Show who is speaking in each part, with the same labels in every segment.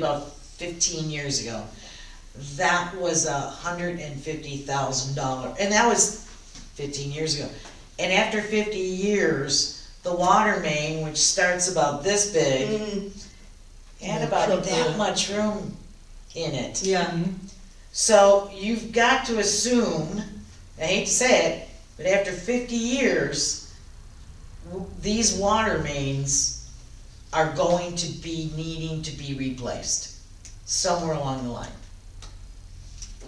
Speaker 1: about fifteen years ago. That was a hundred and fifty thousand dollar, and that was fifteen years ago. And after fifty years, the water main, which starts about this big,
Speaker 2: Mm,
Speaker 1: had
Speaker 2: Yeah,
Speaker 1: about
Speaker 2: choked
Speaker 1: that
Speaker 2: up.
Speaker 1: much room in it.
Speaker 2: Yeah,
Speaker 1: So you've got to assume, I hate to say it, but after fifty years, w- these water mains are going to be needing to be replaced somewhere along the line.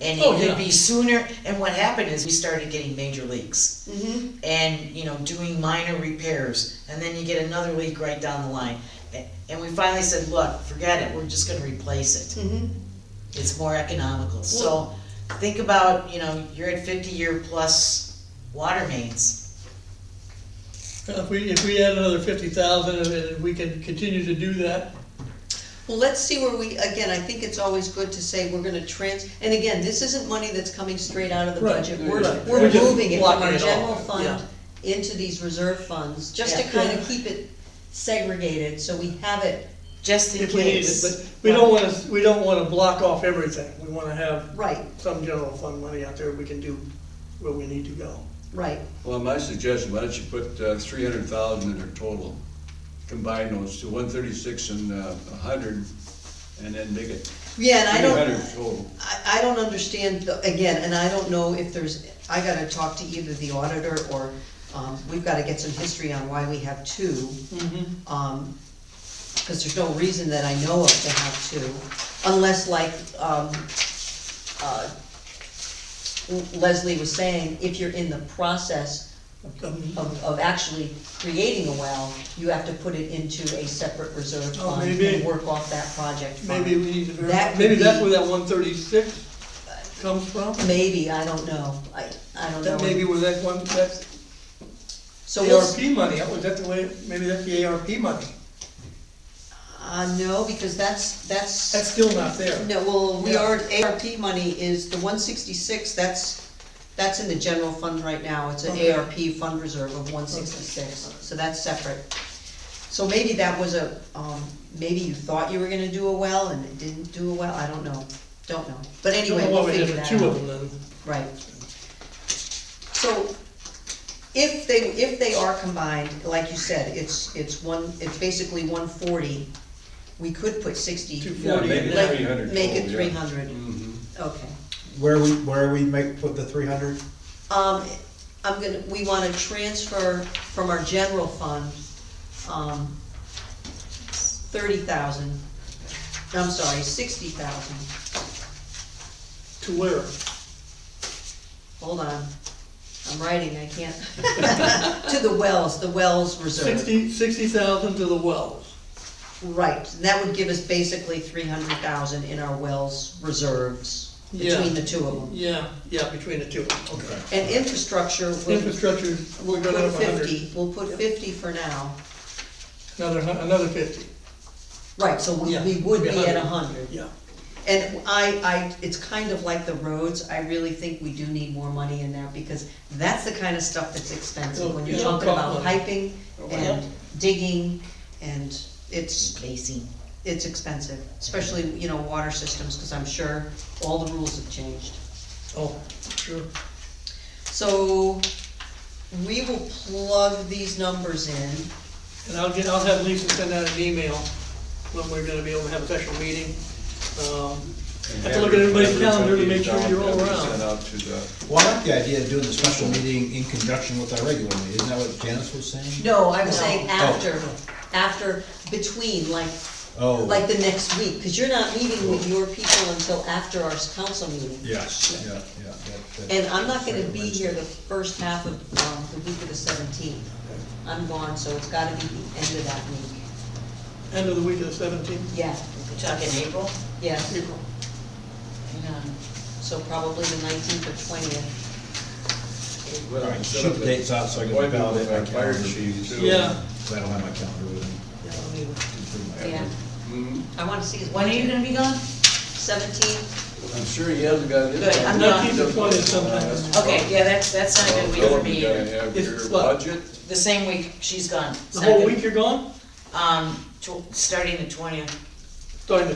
Speaker 1: And
Speaker 3: Oh,
Speaker 1: it could
Speaker 3: yeah.
Speaker 1: be sooner, and what happened is we started getting major leaks
Speaker 2: mhm,
Speaker 1: and, you know, doing minor repairs, and then you get another leak right down the line. A- And we finally said, look, forget it, we're just gonna replace it
Speaker 2: mhm.
Speaker 1: it's more economical, so think about, you know, you're at fifty-year plus water mains.
Speaker 3: If we, if we add another fifty thousand and we can continue to do that,
Speaker 2: Well, let's see where we, again, I think it's always good to say we're gonna trans, and again, this isn't money that's coming straight out of the
Speaker 3: Right,
Speaker 2: budget.
Speaker 3: right,
Speaker 2: We're,
Speaker 3: right.
Speaker 2: we're
Speaker 3: We're just
Speaker 2: moving it from
Speaker 3: blocking
Speaker 2: our
Speaker 3: it off,
Speaker 2: general
Speaker 3: yeah.
Speaker 2: fund into these reserve funds, just to
Speaker 1: Yeah.
Speaker 2: kind of keep it segregated, so we have it,
Speaker 1: Just in
Speaker 3: if we need it,
Speaker 1: case.
Speaker 3: but we don't wanna, we don't wanna block off everything. We wanna have
Speaker 2: right,
Speaker 3: some general fund money out there we can do where we need to go.
Speaker 2: right.
Speaker 4: Well, my suggestion, why don't you put uh, three hundred thousand in her total, combine those to one thirty-six and uh, a hundred, and then make it
Speaker 2: Yeah, and I
Speaker 4: three hundred
Speaker 2: don't,
Speaker 4: total.
Speaker 2: I, I don't understand, the- again, and I don't know if there's, I gotta talk to either the auditor or, um, we've gotta get some history on why we have two. Um, cause there's no reason that I know of to have two, unless like, um, uh, Leslie was saying, if you're in the process
Speaker 3: Um,
Speaker 2: of, of actually creating a well, you have to put it into a separate reserve
Speaker 3: Oh,
Speaker 2: fund and
Speaker 3: maybe.
Speaker 2: work off that project fund.
Speaker 3: Maybe we need to,
Speaker 2: That
Speaker 3: verify-
Speaker 2: could
Speaker 3: maybe that's
Speaker 2: be-
Speaker 3: where that one thirty-six comes from?
Speaker 2: Maybe, I don't know, I, I don't know.
Speaker 3: That may be where that one, that's
Speaker 2: So we'll,
Speaker 3: ARP money, was that the way, maybe that's the ARP money.
Speaker 2: uh, no, because that's,
Speaker 3: That's
Speaker 2: that's,
Speaker 3: still not there.
Speaker 2: no, well, we
Speaker 3: Yeah.
Speaker 2: are, ARP money is, the one sixty-six, that's, that's in the general fund right now, it's an
Speaker 3: Okay.
Speaker 2: ARP fund reserve of one sixty-six, so that's separate. So maybe that was a, um, maybe you thought you were gonna do a well and it didn't do a well, I don't know, don't know, but anyway, we'll
Speaker 3: Well, we
Speaker 2: figure
Speaker 3: did
Speaker 2: that out.
Speaker 3: Two of them then.
Speaker 2: Right. So if they, if they are combined, like you said, it's, it's one, it's basically one forty, we could put sixty.
Speaker 3: Two forty.
Speaker 4: Yeah, make
Speaker 3: Like,
Speaker 4: it three hundred
Speaker 2: Make it
Speaker 4: total,
Speaker 2: three
Speaker 4: yeah.
Speaker 2: hundred,
Speaker 4: Mhm.
Speaker 2: okay.
Speaker 5: Where we, where we make, put the three hundred?
Speaker 2: Um, I'm gonna, we wanna transfer from our general fund, um, thirty thousand, I'm sorry, sixty thousand,
Speaker 3: To where?
Speaker 2: hold on. I'm writing, I can't, to the wells, the wells reserve.
Speaker 3: Sixty, sixty thousand to the wells.
Speaker 2: Right, that would give us basically three hundred thousand in our wells reserves, between
Speaker 3: Yeah.
Speaker 2: the two of them.
Speaker 3: Yeah, yeah, between the two, okay.
Speaker 2: And infrastructure, we'll
Speaker 3: Infrastructure, we're
Speaker 2: we'll
Speaker 3: gonna
Speaker 2: put
Speaker 3: have a hundred.
Speaker 2: fifty, we'll put fifty for now.
Speaker 3: Another, hun- another fifty,
Speaker 2: Right, so we
Speaker 3: Yeah,
Speaker 2: we would
Speaker 3: be
Speaker 2: be at
Speaker 3: 100.
Speaker 2: a hundred.
Speaker 3: yeah.
Speaker 2: And I, I, it's kind of like the roads, I really think we do need more money in there, because that's the kind of stuff that's expensive,
Speaker 3: Well,
Speaker 2: when you're
Speaker 3: yeah,
Speaker 2: talking about
Speaker 3: probably.
Speaker 2: piping
Speaker 1: Yep.
Speaker 2: and digging, and it's,
Speaker 1: Basing.
Speaker 2: it's expensive, especially, you know, water systems, because I'm sure all the rules have changed.
Speaker 3: Oh, sure.
Speaker 2: So, we will plug these numbers in,
Speaker 3: And I'll get, I'll have Lisa send out an email when we're gonna be able to have a special meeting. Um,
Speaker 4: And
Speaker 3: Have to look at everybody's
Speaker 4: average
Speaker 3: calendar to
Speaker 4: would be
Speaker 3: make sure
Speaker 4: down
Speaker 3: you're all
Speaker 4: that we
Speaker 3: around.
Speaker 4: Sent out to the,
Speaker 5: Well, I like the idea of doing the special meeting in conjunction with our regular meeting, isn't that what Janice was saying?
Speaker 2: no, I'm saying
Speaker 5: No.
Speaker 2: after, after, between, like,
Speaker 5: Oh.
Speaker 2: like the next week, because you're not meeting with your people until after our council meeting.
Speaker 5: Yes, yeah, yeah. that- that-
Speaker 2: And I'm not gonna
Speaker 5: Right,
Speaker 2: be here the
Speaker 5: Wednesday.
Speaker 2: first half of, um, the week of the seventeenth, I'm gone, so it's gotta be the end of that week,
Speaker 3: End of the week of the seventeenth,
Speaker 2: yeah,
Speaker 1: We're talking April?
Speaker 2: yeah,
Speaker 3: April.
Speaker 1: Hang on.
Speaker 2: so probably the nineteenth or twentieth.
Speaker 5: All
Speaker 4: well,
Speaker 5: right,
Speaker 4: set
Speaker 5: shoot
Speaker 4: up
Speaker 5: the
Speaker 4: a
Speaker 5: dates out so I can
Speaker 4: appointment
Speaker 5: validate
Speaker 4: with
Speaker 5: my
Speaker 4: our fire
Speaker 5: calendar.
Speaker 4: chief, too.
Speaker 3: Yeah,
Speaker 5: Cause I don't have my calendar with me.
Speaker 2: Yeah,
Speaker 4: Mhm.
Speaker 2: I wanna see his
Speaker 1: When are you gonna be gone?
Speaker 2: Seventeenth,
Speaker 4: I'm sure he hasn't got it.
Speaker 1: Good, I'm
Speaker 3: not keeping point of sometimes.
Speaker 1: Okay, yeah, that's, that's not a good week for me
Speaker 4: Well,
Speaker 1: either.
Speaker 4: Uh, you gotta have
Speaker 3: It's
Speaker 4: your
Speaker 3: what?
Speaker 4: budget,
Speaker 1: The same week, she's gone. It's
Speaker 3: the
Speaker 1: not
Speaker 3: whole
Speaker 1: good.
Speaker 3: week you're gone?
Speaker 1: Um, tw- starting the twentieth.
Speaker 3: Starting the